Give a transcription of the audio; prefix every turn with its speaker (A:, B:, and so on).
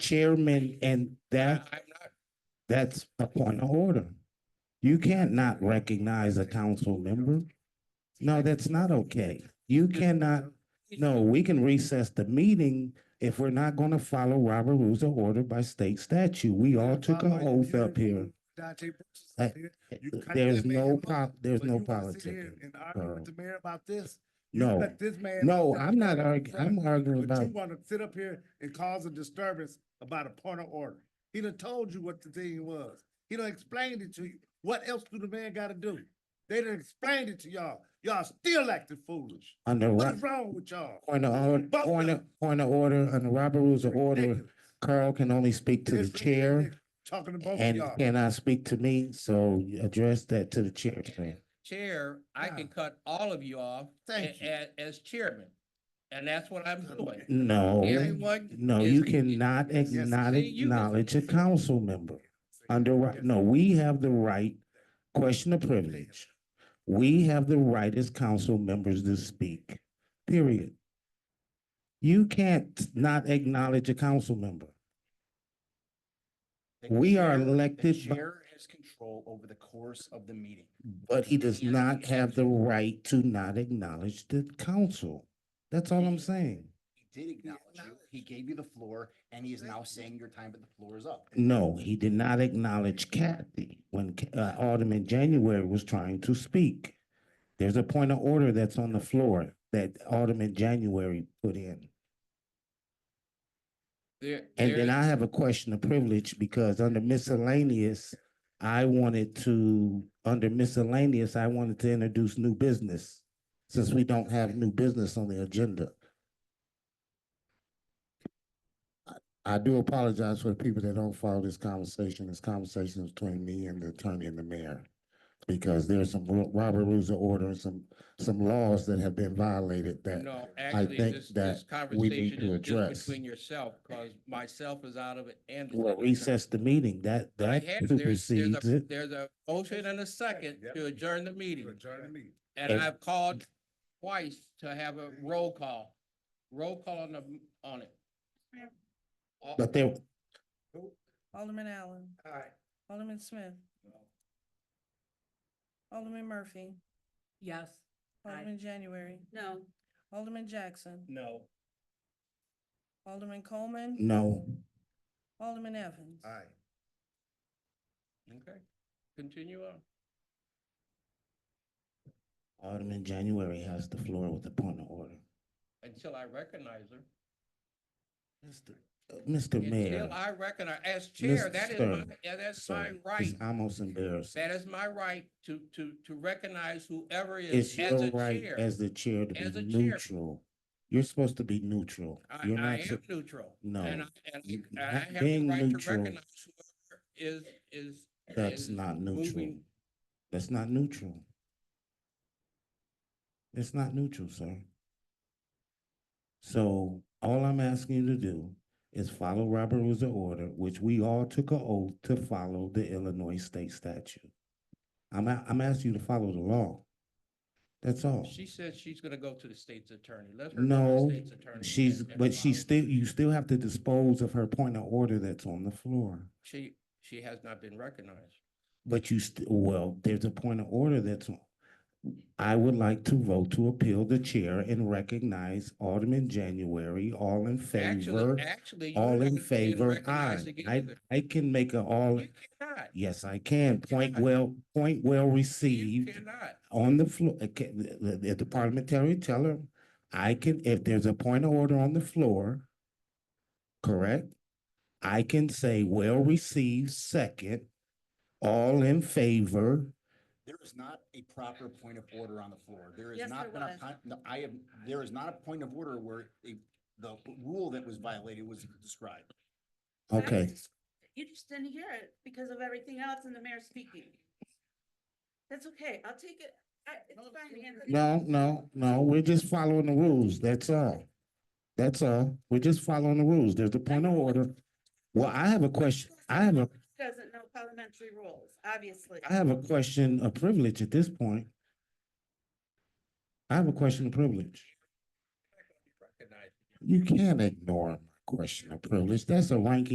A: chairman and that, I'm not, that's a point of order. You can't not recognize a council member. No, that's not okay. You cannot, no, we can recess the meeting if we're not gonna follow Robert Rules of Order by state statute. We all took an oath up here.
B: Dante Brooks is
A: Uh,
B: up here, you cut
A: There's
B: that man
A: no
B: up,
A: pop, there's
B: but
A: no
B: you wanna sit here
A: politics.
B: And argue with
A: so.
B: the mayor about this? You
A: No,
B: let this man
A: no,
B: sit up
A: I'm not
B: here,
A: arguing, I'm arguing
B: But you
A: about,
B: wanna sit up here and cause a disturbance about a point of order. He done told you what the thing was. He done explained it to you. What else do the man gotta do? They done explained it to y'all. Y'all still acting foolish.
A: under what,
B: What's wrong with y'all?
A: point of, or-
B: Both
A: point
B: of
A: of, point of order, under Robert Rules of Order,
B: Ridiculous.
A: Carl can only speak to the
B: It's
A: chair.
B: ridiculous. Talking to
C: Oh
B: both of
A: And
B: y'all.
A: cannot speak to me, so you address that to the chairman.
C: Chair, I can
B: Yeah.
C: cut all of you off a-
B: Thank you.
C: a- as chairman. And that's what I'm doing.
A: No,
C: Everyone,
A: no,
C: is-
A: you cannot
C: yes,
A: not
C: see, you can-
A: acknowledge a council member. Under, right- no, we have the right, question of privilege. We have the right as council members to speak, period. You can't not acknowledge a council member.
D: The
A: We are
D: chair- the
A: elected by-
D: Chair has control over the course of the meeting.
A: But he does not have the right to not acknowledge the council. That's all I'm saying.
D: He did acknowledge you, he gave you the floor, and he is now saying your time at the floor is up.
A: No, he did not acknowledge Kathy when Ca- uh, Alderman January was trying to speak. There's a point of order that's on the floor that Alderman January put in.
C: there,
A: And then
C: there-
A: I have a question of privilege because under miscellaneous, I wanted to, under miscellaneous, I wanted to introduce new business since we don't have new business on the agenda. I- I do apologize for the people that don't follow this conversation. This conversation is between me and the attorney and the mayor. Because there's some Ro- Robert Rules of Order, and some, some laws that have been violated that
C: No, actually,
A: think
C: this,
A: that
C: this
A: we need
C: conversation
A: to
C: is
A: address.
C: just between yourself, because myself is out of it and. the
A: will
C: secretary.
A: recess the meeting. That,
C: I
A: that
C: have- there's- there's a-
A: supersedes it.
C: There's a motion and a second
B: Yep.
C: to adjourn the meeting,
B: Adjourn the meeting.
C: and
A: And-
C: I've called twice to have a roll call. Roll call on the, on it. Oh, All-
A: But there,
E: Alderman Allen. Alderman Smith. Alderman Murphy.
F: Yes. Aye.
E: Alderman January.
F: No.
E: Alderman Jackson.
C: No.
E: Alderman Coleman.
A: no.
E: Alderman Evans.
B: All right.
C: Okay, continue on.
A: Alderman January has the floor with a point of order.
C: until I recognize her.
A: Uh, Mr. Mayor,
C: Until I recognize, as chair, that is my,
A: Mr.
C: yeah, that's my
A: sir, it's
C: right.
A: almost embarrassing.
C: That is my right to, to, to recognize whoever
A: It's
C: is as
A: your
C: a
A: right
C: chair.
A: as the chair to
C: As
A: be
C: a chair.
A: neutral. You're supposed to be neutral.
C: I,
A: You're
C: I
A: not,
C: am
A: sup-
C: neutral.
A: No,
C: And I, and
A: you-
C: I- and I
A: not
C: have the
A: being
C: right to
A: neutral.
C: recognize whoever is, is.
A: that's
C: is
A: not neutral.
C: moving.
A: That's not neutral. It's not neutral, sir. So all I'm asking you to do is follow Robert Rules of Order, which we all took an oath to follow the Illinois state statute. I'm, a- I'm asking you to follow the law. That's all.
C: She says she's gonna go to the state's attorney. Let her. go to the
A: No,
C: state's attorney
A: she's,
C: and- and
A: but she
C: follow-
A: still, you still have to dispose of her point of order that's on the floor.
C: She, she has not been recognized.
A: But you, st- well, there's a point of order that's on. I would like to vote to appeal the chair and recognize Alderman January, all in favor.
C: Actually, actually. you
A: All in
C: haven't been
A: favor,
C: recognized
A: aye.
C: again
A: I,
C: either.
A: I can make a all,
C: You cannot.
A: yes, I can. Point
C: cannot.
A: well, point well
C: You
A: received
C: cannot.
A: on the floor, okay, the, the- the- the parliamentary teller, I can, if there's a point of order on the floor, correct? I can say, well received, second, all in favor.
D: There is not a proper point of order on the floor. There is
F: Yes,
D: not
F: there
D: been a,
F: was.
D: con- no, I am, there is not a point of order where the, the rule that was violated was described.
F: I was
A: Okay.
F: just- You just didn't hear it because of everything else and the mayor speaking. That's okay. I'll take it. I, it's fine. Anthony.
A: No, no, no, we're just following the rules, that's all. That's all, we're just following the rules, there's a point of order. Well, I have a question, I have a,
F: Doesn't know parliamentary rules, obviously.
A: I have a question of privilege at this point. I have a question of privilege.
C: Recognized.
A: You can't ignore my question of privilege. That's a rank